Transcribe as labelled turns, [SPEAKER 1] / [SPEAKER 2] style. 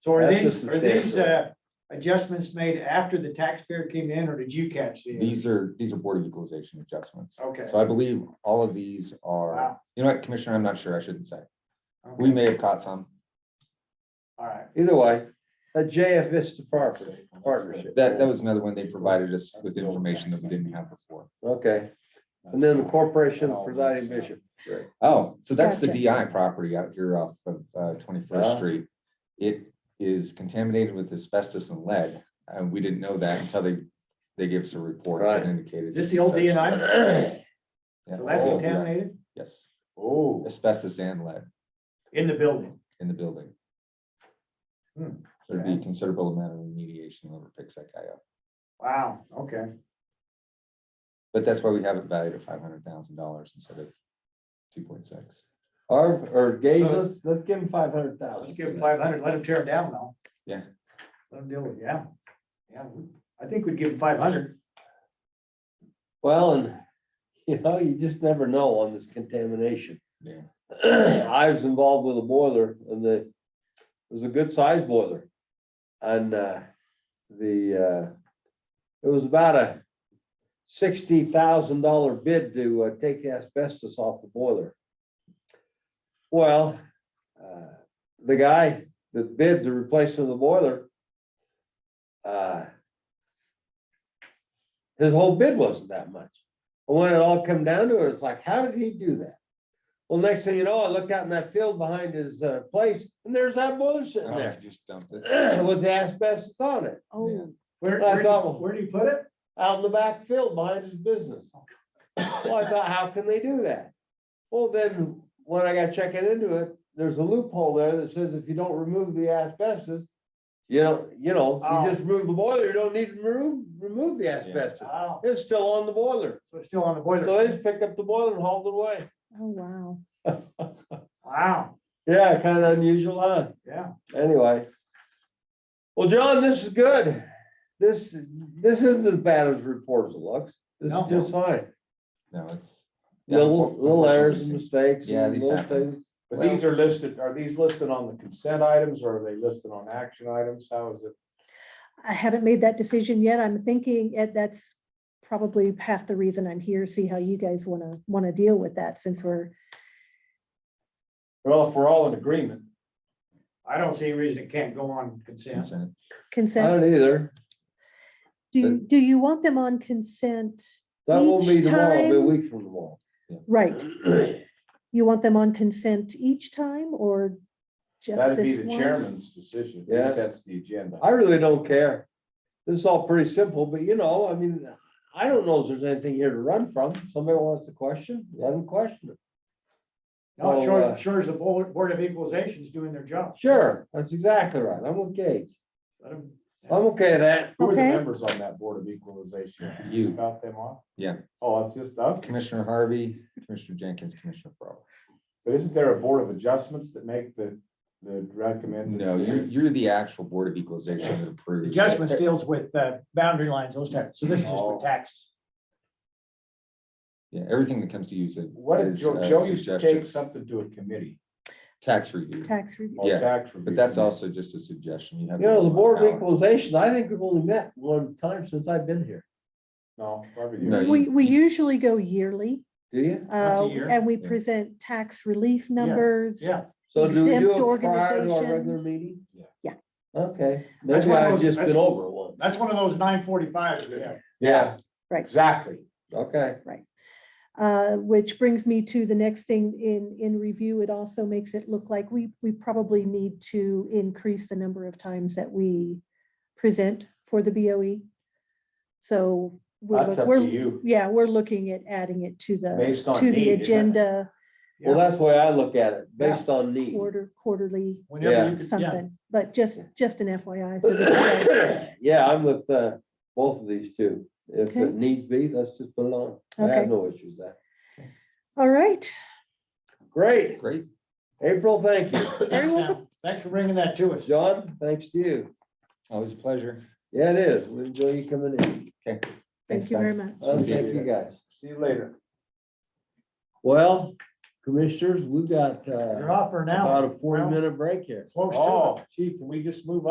[SPEAKER 1] So are
[SPEAKER 2] That's a
[SPEAKER 1] these, are these,
[SPEAKER 2] substantial.
[SPEAKER 1] uh, adjustments made after the taxpayer came in, or did you catch these?
[SPEAKER 3] These are, these are Board of Equalization adjustments.
[SPEAKER 1] Okay.
[SPEAKER 3] So I believe all of these are,
[SPEAKER 1] Wow.
[SPEAKER 3] you know what, Commissioner, I'm not sure, I shouldn't say.
[SPEAKER 1] Okay.
[SPEAKER 3] We may have caught some.
[SPEAKER 1] All right,
[SPEAKER 2] Either way, a JF Vista property, partnership.
[SPEAKER 3] That, that was another one they provided us with information that we didn't have before.
[SPEAKER 2] Okay, and then the corporation of presiding bishop.
[SPEAKER 3] Oh, so that's the
[SPEAKER 4] Gotcha.
[SPEAKER 3] DI property out here off of uh, Twenty-First
[SPEAKER 2] Ah.
[SPEAKER 3] Street. It is contaminated with asbestos and lead, and we didn't know that until they, they gave us a report
[SPEAKER 2] Right.
[SPEAKER 3] that indicated.
[SPEAKER 1] is this the old
[SPEAKER 3] D and
[SPEAKER 1] DNI?
[SPEAKER 3] Oh,
[SPEAKER 1] So that's contaminated
[SPEAKER 3] Yes,
[SPEAKER 2] Oh.
[SPEAKER 3] asbestos and lead
[SPEAKER 1] in the building.
[SPEAKER 3] in the building. So
[SPEAKER 1] Hmm.
[SPEAKER 3] there'd be a considerable amount of remediation whoever picks that guy up,
[SPEAKER 1] Wow, okay,
[SPEAKER 3] but that's why we have it valued at five hundred thousand dollars instead of two point six.
[SPEAKER 2] Or, or Gaze,
[SPEAKER 1] So-
[SPEAKER 2] let's, let's give him five hundred thousand.
[SPEAKER 1] let's give them five hundred, let them tear it down though.
[SPEAKER 3] Yeah.
[SPEAKER 1] Let them deal with, it. yeah, yeah, we- I think we'd give them five hundred.
[SPEAKER 2] Well, and, you know, you just never know on this contamination.
[SPEAKER 3] Yeah.
[SPEAKER 2] I was involved with a boiler and the, it was a good sized boiler. And, uh, the, uh, it was about a sixty thousand dollar bid to, uh, take the asbestos off the boiler. Well, uh, the guy that bid the replacement of the boiler, uh, his whole bid wasn't that much. And when it all come down to it, it's like, how did he do that? Well, next thing you know, I looked out in that field behind his uh, place and there's that boiler sitting
[SPEAKER 3] Oh, I
[SPEAKER 2] there
[SPEAKER 3] Just dumped it.
[SPEAKER 2] with the asbestos on it,
[SPEAKER 4] Oh,
[SPEAKER 1] Where,
[SPEAKER 2] I
[SPEAKER 1] where, do you-
[SPEAKER 2] thought-
[SPEAKER 1] where do you put it?
[SPEAKER 2] out in the back field behind his business. Well, I thought, how can they do that? Well, then, when I got checking into it, there's a loophole there that says if you don't remove the asbestos, you don't, you know,
[SPEAKER 1] Oh.
[SPEAKER 2] you just remove the boiler, you don't need to remove, remove the asbestos.
[SPEAKER 1] Wow,
[SPEAKER 2] It's still on the boiler.
[SPEAKER 1] so it's still on the
[SPEAKER 2] So they
[SPEAKER 1] boiler.
[SPEAKER 2] just picked up the boiler and hauled it away.
[SPEAKER 4] oh, wow.
[SPEAKER 1] Wow,
[SPEAKER 2] Yeah, kind of unusual, huh?
[SPEAKER 1] yeah,
[SPEAKER 2] Anyway. Well, John, this is good. This, this isn't as bad as reports it looks. This is
[SPEAKER 1] No.
[SPEAKER 2] just fine.
[SPEAKER 3] No, it's. yeah,
[SPEAKER 2] Little,
[SPEAKER 3] unfor-
[SPEAKER 2] little errors and
[SPEAKER 3] unfortunately, these
[SPEAKER 2] mistakes
[SPEAKER 3] Yeah,
[SPEAKER 2] and
[SPEAKER 3] these
[SPEAKER 2] little
[SPEAKER 3] happen.
[SPEAKER 2] things.
[SPEAKER 5] But these are listed, are these listed on the consent items or are they listed on action items? How is it?
[SPEAKER 4] I haven't made that decision yet. I'm thinking Ed, that's probably half the reason I'm here, see how you guys want to, want to deal with that since we're,
[SPEAKER 5] Well, if we're all in agreement,
[SPEAKER 1] I don't see any reason it can't go on consent.
[SPEAKER 3] consent.
[SPEAKER 2] I
[SPEAKER 4] consent.
[SPEAKER 2] don't either.
[SPEAKER 4] Do, do you want them on consent?
[SPEAKER 2] That won't be
[SPEAKER 4] Each
[SPEAKER 2] tomorrow, it'll be a
[SPEAKER 4] time-
[SPEAKER 2] week from tomorrow.
[SPEAKER 4] Right. You want them on consent each time or just
[SPEAKER 5] that'd be
[SPEAKER 4] this
[SPEAKER 5] the
[SPEAKER 4] one?
[SPEAKER 5] chairman's decision.
[SPEAKER 2] Yeah.
[SPEAKER 5] He sets the agenda.
[SPEAKER 2] I really don't care. This is all pretty simple, but you know, I mean, I don't know if there's anything here to run from. Somebody wants to question, let them question it.
[SPEAKER 1] No,
[SPEAKER 2] Well,
[SPEAKER 1] sure,
[SPEAKER 2] uh,
[SPEAKER 1] sure as the Board Board of Equalization is doing their job.
[SPEAKER 2] Sure, that's exactly right. I'm with Gage.
[SPEAKER 1] Let 'em-
[SPEAKER 2] I'm okay with that.
[SPEAKER 5] Who are the
[SPEAKER 4] Okay.
[SPEAKER 5] members on that Board of Equalization?
[SPEAKER 3] You.
[SPEAKER 5] About them off?
[SPEAKER 3] Yeah.
[SPEAKER 5] Oh, it's just us?
[SPEAKER 3] Commissioner Harvey, Commissioner Jenkins, Commissioner Farrell.
[SPEAKER 5] But isn't there a Board of Adjustments that make the, the recommended?
[SPEAKER 3] No, you're, you're the actual Board of Equalization that approves.
[SPEAKER 1] Adjustments deals with uh, boundary lines, those types, so this is just for
[SPEAKER 5] Oh.
[SPEAKER 1] taxes.
[SPEAKER 3] Yeah, everything that comes to you is. a-
[SPEAKER 5] What did
[SPEAKER 3] is,
[SPEAKER 5] Joe,
[SPEAKER 3] uh,
[SPEAKER 5] Joe used to take
[SPEAKER 3] suggestion.
[SPEAKER 5] something to a committee
[SPEAKER 3] Tax review,
[SPEAKER 4] Tax review.
[SPEAKER 5] or
[SPEAKER 3] Yeah,
[SPEAKER 5] tax review.
[SPEAKER 3] but that's
[SPEAKER 5] committee.
[SPEAKER 3] also just a suggestion. You have.
[SPEAKER 2] You know, the
[SPEAKER 3] no
[SPEAKER 2] Board of
[SPEAKER 3] power.
[SPEAKER 2] Equalization, I think we've only met one time since I've been here.
[SPEAKER 5] No. every
[SPEAKER 3] No,
[SPEAKER 5] year.
[SPEAKER 3] you-
[SPEAKER 4] We, we usually go yearly,
[SPEAKER 2] Do you?
[SPEAKER 1] Once a
[SPEAKER 4] uh,
[SPEAKER 1] year?
[SPEAKER 4] and we
[SPEAKER 3] Yeah.
[SPEAKER 4] present tax relief numbers.
[SPEAKER 1] Yeah,
[SPEAKER 2] So do we do it
[SPEAKER 4] Exempt
[SPEAKER 2] prior to our regular
[SPEAKER 4] organizations.
[SPEAKER 2] meeting?
[SPEAKER 5] Yeah.
[SPEAKER 4] Yeah.
[SPEAKER 2] Okay,
[SPEAKER 1] That's
[SPEAKER 2] maybe
[SPEAKER 1] one of
[SPEAKER 2] I've
[SPEAKER 1] those-
[SPEAKER 2] just been
[SPEAKER 1] that's-
[SPEAKER 2] over one.
[SPEAKER 1] that's one of those nine forty-fives we have.
[SPEAKER 2] Yeah,
[SPEAKER 5] Exactly.
[SPEAKER 2] okay.
[SPEAKER 4] Uh, which brings me to the next thing in, in review, it also makes it look like we, we probably need to increase the number of times that we present for the BOE. So we're,
[SPEAKER 5] That's
[SPEAKER 4] look-
[SPEAKER 5] up to
[SPEAKER 4] we're,
[SPEAKER 5] you,
[SPEAKER 4] yeah, we're looking at adding it to the,
[SPEAKER 5] based on
[SPEAKER 4] to
[SPEAKER 5] need.
[SPEAKER 4] the
[SPEAKER 5] isn't it?
[SPEAKER 4] agenda
[SPEAKER 2] Well, that's the way I look at it,
[SPEAKER 1] Yeah.
[SPEAKER 2] based on need.
[SPEAKER 4] quarter, quarterly,
[SPEAKER 1] Whenever you could, yeah,
[SPEAKER 4] something, but just, just an FYI. so that you guys-
[SPEAKER 2] Yeah, I'm with uh, both of these two. If
[SPEAKER 4] Okay.
[SPEAKER 2] it needs be, let's just put it on. I
[SPEAKER 4] Okay.
[SPEAKER 2] have no issues with that.
[SPEAKER 4] All right,
[SPEAKER 2] Great,
[SPEAKER 3] Great.
[SPEAKER 2] April, thank you.
[SPEAKER 1] thanks
[SPEAKER 4] very welcome.
[SPEAKER 1] now. Thanks for bringing that to us.
[SPEAKER 2] John, thanks to you.
[SPEAKER 3] Always a pleasure.
[SPEAKER 2] Yeah, it is. We enjoy you coming in.
[SPEAKER 4] Thank you very much.
[SPEAKER 2] Uh,
[SPEAKER 3] See you.
[SPEAKER 2] Thank you guys.
[SPEAKER 5] See you later.
[SPEAKER 2] Well, Commissioners, we've got, uh,
[SPEAKER 1] You're off for an hour.
[SPEAKER 2] about a forty-minute break here.
[SPEAKER 1] Close to it. Oh,
[SPEAKER 3] Oh, gee, can we just move